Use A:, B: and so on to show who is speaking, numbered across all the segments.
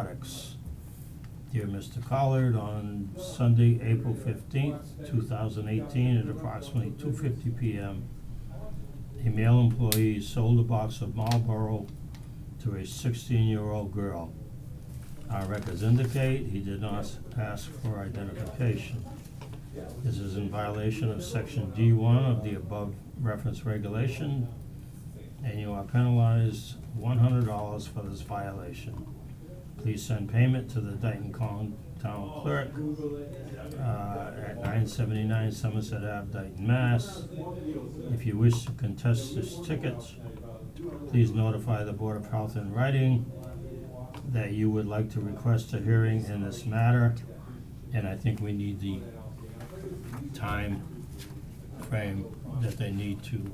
A: Products. Dear Mr. Collard, on Sunday, April fifteenth, two thousand eighteen, at approximately two fifty P M, a male employee sold a box of Marlboro to a sixteen-year-old girl. Our records indicate he did not s- ask for identification. This is in violation of section D one of the above reference regulation, and you are penalized one hundred dollars for this violation. Please send payment to the Dayton Con Town Clerk, uh, at nine seventy-nine Somerset Ave, Dayton, Mass. If you wish to contest this ticket, please notify the Board of Health in writing that you would like to request a hearing in this matter, and I think we need the time frame that they need to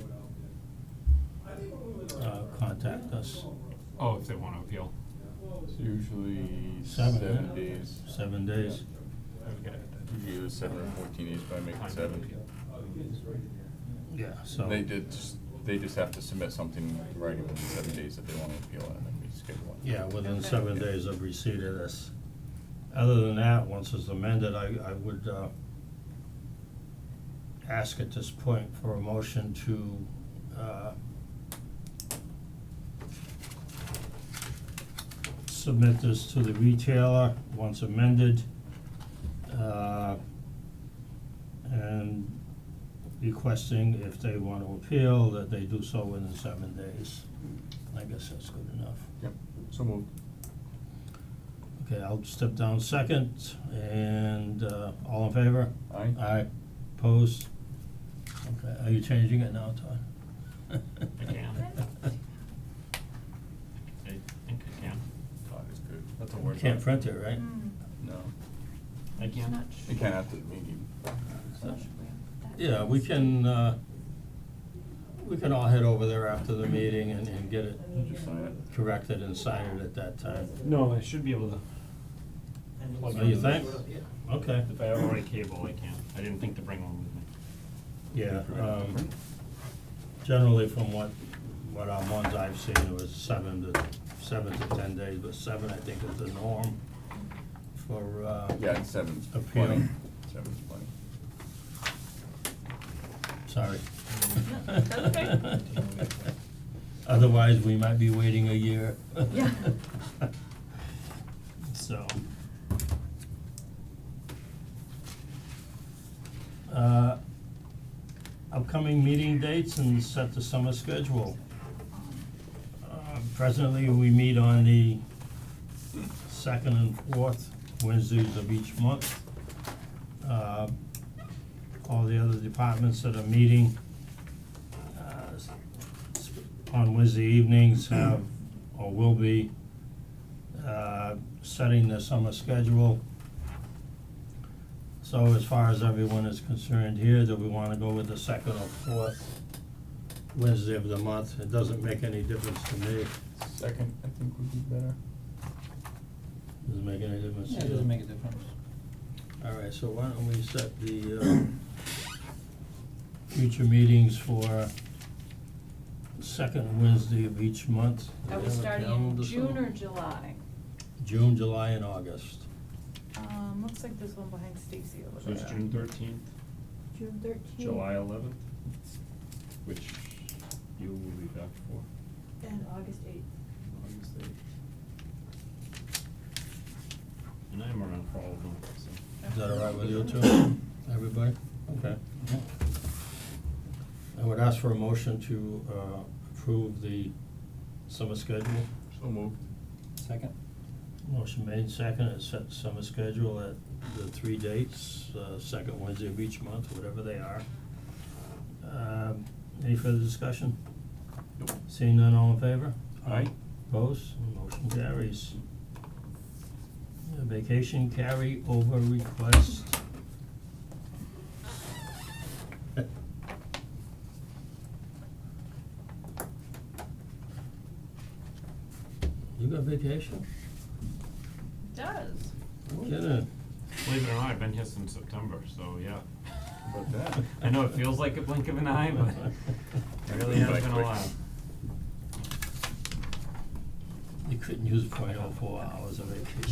A: uh contact us,
B: Oh, if they wanna appeal,
C: It's
A: Seven,
C: usually seven
A: yeah.
C: days.
A: seven days.
B: I would get it.
C: Usually it was seven or fourteen days, but I make
B: Time
C: it
B: to
C: seven.
B: appeal.
A: Yeah, so.
C: They did, just- they just have to submit something in writing within seven days that they wanna appeal, and then we schedule one.
A: Yeah, within seven days of receipt of this. Other than that, once it's amended, I, I would, uh, ask at this point for a motion to, uh, submit this to the retailer, once amended, uh, and requesting if they want to appeal, that they do so within seven days. I guess that's good enough.
C: Yep, so moved.
A: Okay, I'll step down second, and, uh, all in favor?
C: Aye.
A: Aye, opposed? Okay, are you changing it now, Todd?
B: I can. I think I can,
C: Todd is good.
B: That's a
A: You
B: word.
A: Can't print it, right?
D: Hmm.
C: No,
B: I can.
C: you can't after the meeting.
D: Mm.
A: Yeah, we can, uh, we can all head over there after the meeting and, and get it
C: Just sign it.
A: corrected and sign it at that time.
E: No, I should be able to. plug
A: Oh, you
E: into
A: think?
E: this.
A: Okay,
B: If I have already cable, I can, I didn't think to bring one with me.
A: yeah, um, generally from what, what our ones I've seen, it was seven to, seven to ten days, but seven, I think, is the norm for, uh,
C: Yeah, it's seven's
A: Appeal.
C: plenty, seven's plenty.
A: Sorry.
D: that's okay.
A: Otherwise, we might be waiting a year.
D: Yeah.
A: So. Uh, upcoming meeting dates and set the summer schedule. Uh, presently, we meet on the second and fourth Wednesdays of each month. Uh, all the other departments that are meeting uh, s- s- on Wednesday evenings have, or will be, uh, setting the summer schedule. So as far as everyone is concerned here, do we wanna go with the second or fourth Wednesday of the month? It doesn't make any difference to me.
C: Second, I think would be better.
A: Doesn't make any difference to
E: Yeah, it
A: you?
E: doesn't make a difference.
A: All right, so why don't we set the, um, future meetings for second Wednesday of each month? Do we
D: Are we
A: have a
D: starting in
A: calendar
D: June
A: somewhere?
D: or July?
A: June, July, and August.
D: Um, looks like there's one behind Stacy over
B: So
D: there.
B: it's June thirteenth,
D: June thirteenth.
B: July eleventh, which you will be back for.
D: And August eighth.
B: August eighth. And I'm around for all of them, so.
A: Is that all right with you two, everybody? Okay. I would ask for a motion to, uh, approve the summer schedule.
C: So moved.
E: Second?
A: Motion made, second, and set the summer schedule at the three dates, uh, second Wednesday of each month, whatever they are. Um, any further discussion?
C: Nope.
A: Seeing none, all in favor?
C: Aye.
A: Opposed, motion carries. Uh, Vacation carry over request. You got vacation?
D: Does.
A: No kidding.
B: Believe it or not, I've been here since September, so yeah.
C: About that.
B: I know it feels like a blink of an eye, but it really
C: Been
B: has
C: back
B: been a
C: quick.
B: while.
A: you couldn't use point oh four hours of vacation.